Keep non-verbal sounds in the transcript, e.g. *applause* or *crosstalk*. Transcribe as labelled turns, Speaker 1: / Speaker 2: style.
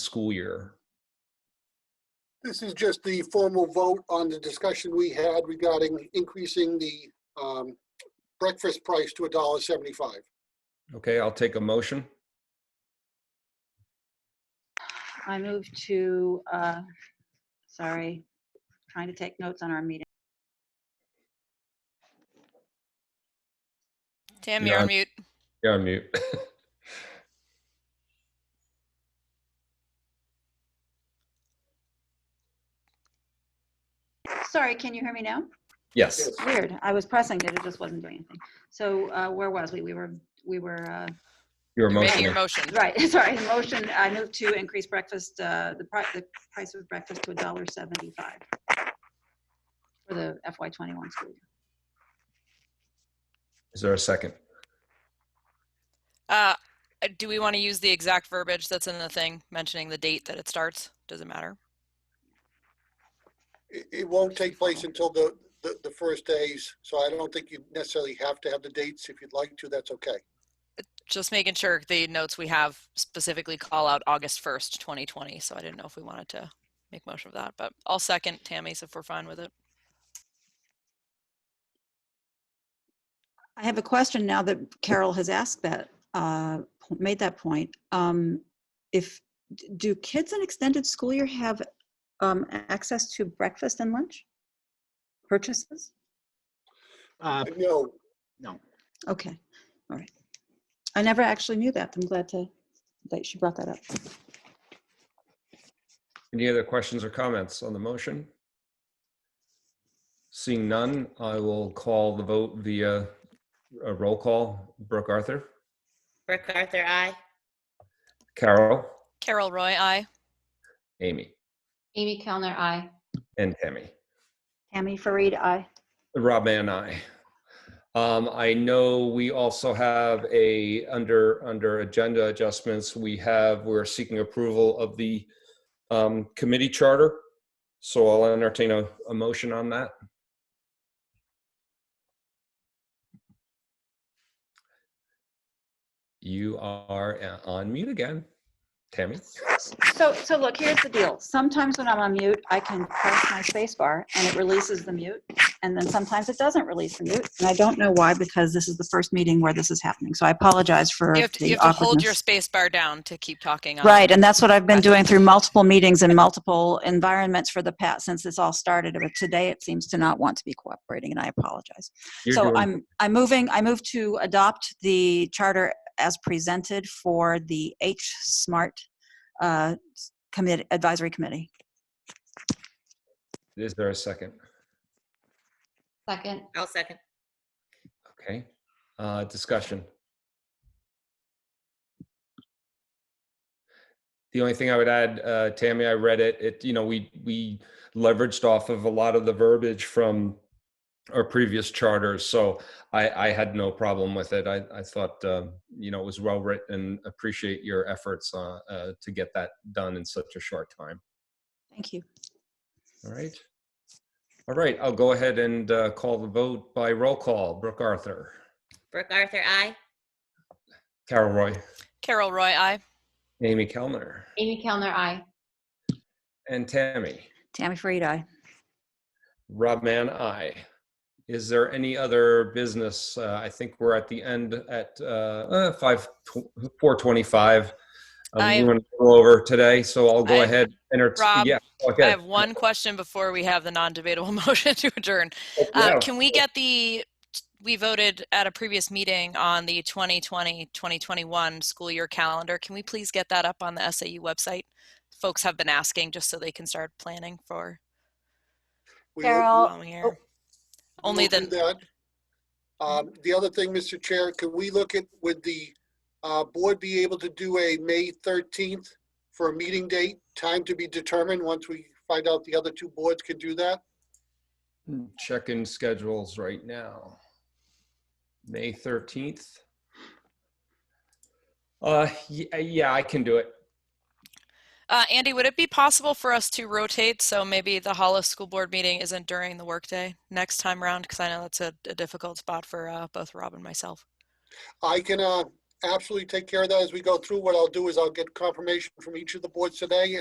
Speaker 1: school year.
Speaker 2: This is just the formal vote on the discussion we had regarding increasing the um, breakfast price to $1.75.
Speaker 1: Okay, I'll take a motion.
Speaker 3: I move to, uh, sorry, trying to take notes on our meeting.
Speaker 4: Tim,
Speaker 1: You're
Speaker 4: you're
Speaker 1: on.
Speaker 4: on mute.
Speaker 1: You're on mute.
Speaker 3: Sorry, can you hear me now?
Speaker 1: *laughs* Yes,
Speaker 3: Weird, I was pressing it, it just wasn't doing anything. So uh, where was we? We were, we were, uh,
Speaker 1: your
Speaker 4: You're making your
Speaker 1: motion.
Speaker 4: motion.
Speaker 3: right, *laughs* sorry, the motion, I move to increase breakfast, uh, the price, the price of breakfast to $1.75 for the FY21 school year.
Speaker 1: Is there a second?
Speaker 4: Uh, do we want to use the exact verbiage that's in the thing, mentioning the date that it starts? Doesn't matter.
Speaker 2: It it won't take place until the, the the first days, so I don't think you necessarily have to have the dates. If you'd like to, that's okay.
Speaker 4: Just making sure the notes we have specifically call out August 1st, 2020. So I didn't know if we wanted to make motion of that, but I'll second Tammy's if we're fine with it.
Speaker 5: I have a question now that Carol has asked that, uh, po- made that point. Um, If, d- do kids in extended school year have um, access to breakfast and lunch purchases?
Speaker 6: Uh,
Speaker 2: No,
Speaker 5: Okay, all right. I never actually knew that. I'm glad to, that she brought that up.
Speaker 1: Any other questions or comments on the motion? Seeing none, I will call the vote via a roll call. Brooke Arthur,
Speaker 7: Brooke Arthur, I.
Speaker 1: Carol,
Speaker 4: Carol Roy, I.
Speaker 1: Amy,
Speaker 8: Amy Kellner, I.
Speaker 1: and Tammy.
Speaker 5: Tammy Farid, aye.
Speaker 1: Rob and I. Um, I know we also have a, under, under agenda adjustments, we have, we're seeking approval of the um, committee charter. So I'll entertain a, a motion on that. You are uh, on mute again, Tammy.
Speaker 3: So, so look, here's the deal. Sometimes when I'm on mute, I can press my space bar and it releases the mute. And then sometimes it doesn't release the mute. And I don't know why, because this is the first meeting where this is happening. So I apologize for
Speaker 4: You have to, you
Speaker 3: the
Speaker 4: have to hold your
Speaker 3: awkwardness.
Speaker 4: space bar down to keep talking. on-
Speaker 5: Right, and that's what I've been doing through multiple meetings and multiple environments for the past, since this all started. But today it seems to not want to be cooperating, and I apologize.
Speaker 1: You're
Speaker 5: So
Speaker 1: doing-
Speaker 5: I'm, I'm moving, I move to adopt the charter as presented for the H Smart uh, Commit, Advisory Committee.
Speaker 1: Is there a second?
Speaker 8: Second,
Speaker 7: I'll second.
Speaker 1: Okay, uh, discussion. The only thing I would add, uh, Tammy, I read it, it, you know, we, we leveraged off of a lot of the verbiage from our previous charters, so I, I had no problem with it. I, I thought, uh, you know, it was well written and appreciate your efforts, uh, uh, to get that done in such a short time.
Speaker 5: Thank you.
Speaker 1: All right. All right, I'll go ahead and, uh, call the vote by roll call. Brooke Arthur,
Speaker 7: Brooke Arthur, I.
Speaker 1: Carol Roy.
Speaker 4: Carol Roy, I.
Speaker 1: Amy Kellner
Speaker 8: Amy Kellner, I.
Speaker 1: and Tammy.
Speaker 5: Tammy Farid, aye.
Speaker 1: Rob Man, I. Is there any other business? Uh, I think we're at the end at uh, uh, five tw- four twenty-five. Um,
Speaker 4: I-
Speaker 1: we went a little over today, so I'll go
Speaker 4: I-
Speaker 1: ahead. Enter.
Speaker 4: Rob,
Speaker 1: yeah. Okay.
Speaker 4: I have one question before we have the non-debatable *laughs* motion to adjourn.
Speaker 1: Oh, Yeah.
Speaker 4: Uh, Can we get the, we voted at a previous meeting on the 2020, 2021 school year calendar. Can we please get that up on the SAU website? Folks have been asking just so they can start planning for
Speaker 2: we will-
Speaker 3: Carol,
Speaker 4: following year.
Speaker 2: we will
Speaker 4: Only
Speaker 2: do
Speaker 4: then,
Speaker 2: that. Um, The other thing, Mr. Chair, can we look at, would the uh, board be able to do a May 13th for a meeting date? Time to be determined once we find out the other two boards can do that?
Speaker 1: Checking schedules right now. May thirteenth. Uh, yeah, yeah, I can do it.
Speaker 4: uh, Andy, would it be possible for us to rotate? So maybe the Hollis School Board meeting isn't during the workday next time round? Because I know that's a, a difficult spot for uh, both Rob and myself.
Speaker 2: I can, uh, absolutely take care of that as we go through. What I'll do is I'll get confirmation from each of the boards today